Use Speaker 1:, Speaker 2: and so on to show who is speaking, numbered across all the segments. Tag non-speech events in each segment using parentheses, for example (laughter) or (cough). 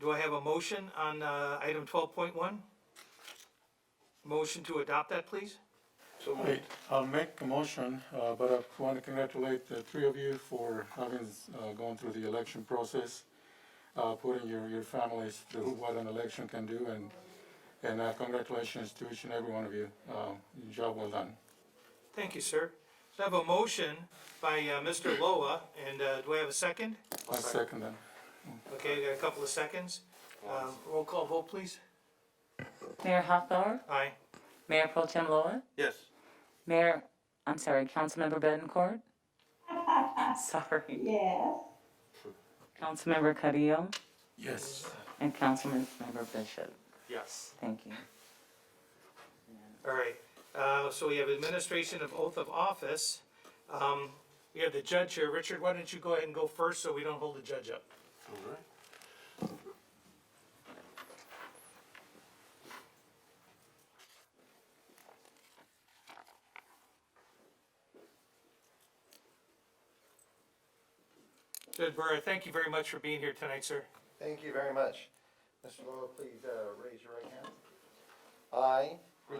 Speaker 1: Do I have a motion on, uh, item twelve point one? Motion to adopt that, please?
Speaker 2: So
Speaker 3: Wait, I'll make a motion, uh, but I want to congratulate the three of you for having, uh, gone through the election process, uh, putting your, your families through what an election can do, and, and uh, congratulations to each and every one of you. Uh, Job well done.
Speaker 1: Thank you, sir. So I have a motion by, uh, Mr. Loa, and, uh, do I have a second?
Speaker 3: I second that.
Speaker 1: Okay, I got a couple of seconds. Um, roll call vote, please.
Speaker 4: Mayor Hawthorne,
Speaker 1: Aye.
Speaker 4: Mayor Pro Tem Loa,
Speaker 2: Yes.
Speaker 4: Mayor, I'm sorry, Councilmember Bettencourt. (laughs) Sorry. Yes. Councilmember Carrillo
Speaker 3: Yes.
Speaker 4: and Councilmember Bishop.
Speaker 2: Yes.
Speaker 4: Thank you.
Speaker 1: All right, uh, so we have administration of oath of office. Um, we have the judge here. Richard, why don't you go ahead and go first so we don't hold the judge up?
Speaker 2: All right.
Speaker 1: Judge Burr, thank you very much for being here tonight, sir.
Speaker 5: Thank you very much. Mr. Lowell, please uh, raise your right hand. I
Speaker 6: I,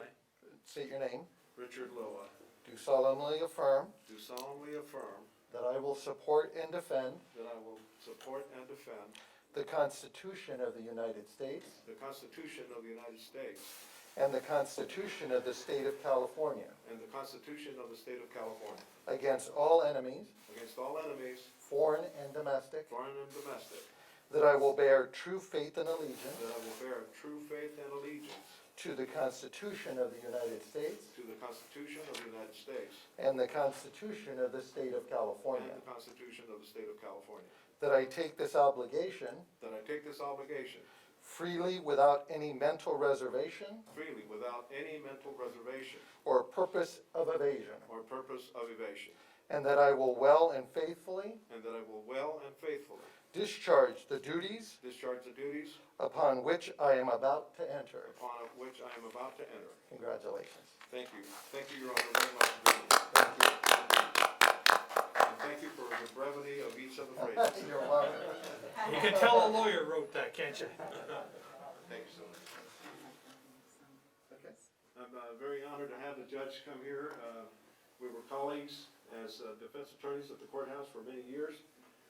Speaker 5: state your name.
Speaker 6: Richard Loa,
Speaker 5: Do solemnly affirm
Speaker 6: do solemnly affirm
Speaker 5: that I will support and defend
Speaker 6: that I will support and defend
Speaker 5: the Constitution of the United States
Speaker 6: the Constitution of the United States
Speaker 5: and the Constitution of the State of California
Speaker 6: and the Constitution of the State of California
Speaker 5: against all enemies,
Speaker 6: against all enemies,
Speaker 5: foreign and domestic,
Speaker 6: foreign and domestic,
Speaker 5: that I will bear true faith and allegiance
Speaker 6: that I will bear true faith and allegiance
Speaker 5: to the Constitution of the United States
Speaker 6: to the Constitution of the United States
Speaker 5: and the Constitution of the State of
Speaker 6: and
Speaker 5: California,
Speaker 6: the Constitution of the State of California,
Speaker 5: that I take this obligation
Speaker 6: that I take this obligation
Speaker 5: freely without any mental reservation
Speaker 6: freely without any mental reservation
Speaker 5: or purpose of evasion,
Speaker 6: or purpose of evasion,
Speaker 5: and that I will well and faithfully
Speaker 6: and that I will well and faithfully
Speaker 5: discharge the duties
Speaker 6: discharge the duties
Speaker 5: upon which I am about to enter.
Speaker 6: upon which I am about to enter.
Speaker 5: Congratulations.
Speaker 6: Thank you. Thank you, Your Honor, very much. for doing this.
Speaker 5: Thank you.
Speaker 6: And thank you for the brevity of each of the
Speaker 5: (laughs)
Speaker 6: phrases.
Speaker 5: You're welcome.
Speaker 1: You can tell a lawyer wrote that, can't you?
Speaker 6: Thank you so much.
Speaker 5: Okay.
Speaker 6: I'm uh, very honored to have the judge come here. Uh, We were colleagues as uh, defense attorneys at the courthouse for many years.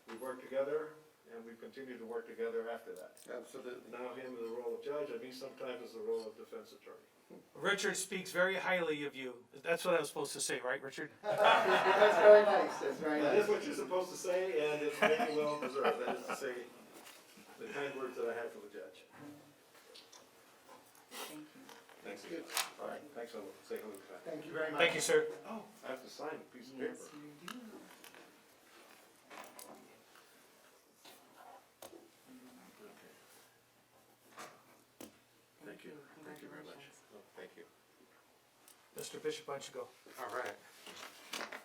Speaker 6: We've worked together, and we've continued to work together after that.
Speaker 5: Absolutely.
Speaker 6: Now him in the role of judge, and me sometimes as the role of defense attorney.
Speaker 1: Richard speaks very highly of you. That's what I was supposed to say, right, Richard?
Speaker 5: That's very nice, that's very
Speaker 6: That is
Speaker 5: nice.
Speaker 6: what you're supposed to say, and it's very well deserved. That is to say, the kind words that I had for the judge. Thanks again. All right, thanks, I'll say hello to Pat.
Speaker 5: Thank you very much.
Speaker 1: Thank you, sir.
Speaker 6: Oh, I have to sign a piece of paper. Thank you, thank you very much. Oh, Thank you.
Speaker 1: Mr. Bishop, why don't you go?
Speaker 6: All right.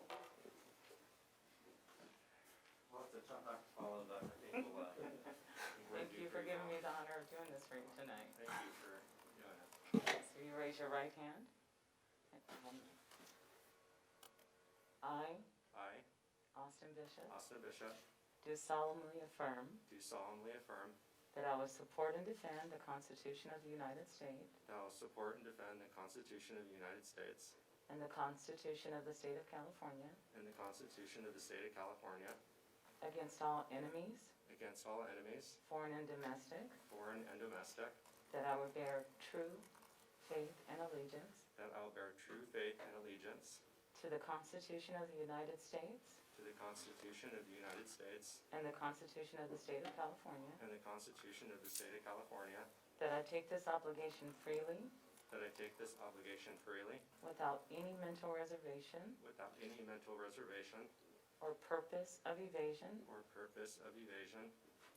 Speaker 7: uh,
Speaker 4: Thank you for giving me the honor of doing this for you tonight. Thank you for doing it. So you raise your right hand. I,
Speaker 7: I,
Speaker 4: Austin Bishop,
Speaker 7: Austin Bishop,
Speaker 4: do solemnly affirm
Speaker 7: do solemnly affirm
Speaker 4: that I will support and defend the Constitution of the United States
Speaker 7: that I will support and defend the Constitution of the United States
Speaker 4: and the Constitution of the State of California
Speaker 7: and the Constitution of the State of California
Speaker 4: against all enemies,
Speaker 7: against all enemies,
Speaker 4: foreign and domestic,
Speaker 7: foreign and domestic,
Speaker 4: that I will bear true faith and allegiance
Speaker 7: that I will bear true faith and allegiance
Speaker 4: to the Constitution of the United States
Speaker 7: to the Constitution of the United States
Speaker 4: and the Constitution of the State of California,
Speaker 7: and the Constitution of the State of California,
Speaker 4: that I take this obligation freely
Speaker 7: that I take this obligation freely
Speaker 4: without any mental reservation
Speaker 7: without any mental reservation
Speaker 4: or purpose of evasion,
Speaker 7: or purpose of evasion,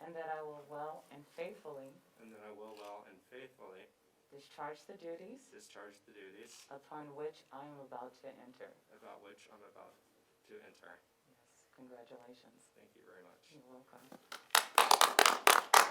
Speaker 4: and that I will well and faithfully
Speaker 7: and that I will well and faithfully
Speaker 4: discharge the duties
Speaker 7: discharge the duties
Speaker 4: upon which I am about to enter.
Speaker 7: about which I'm about to enter.
Speaker 4: Yes, congratulations.
Speaker 7: Thank you very much.
Speaker 4: You're welcome.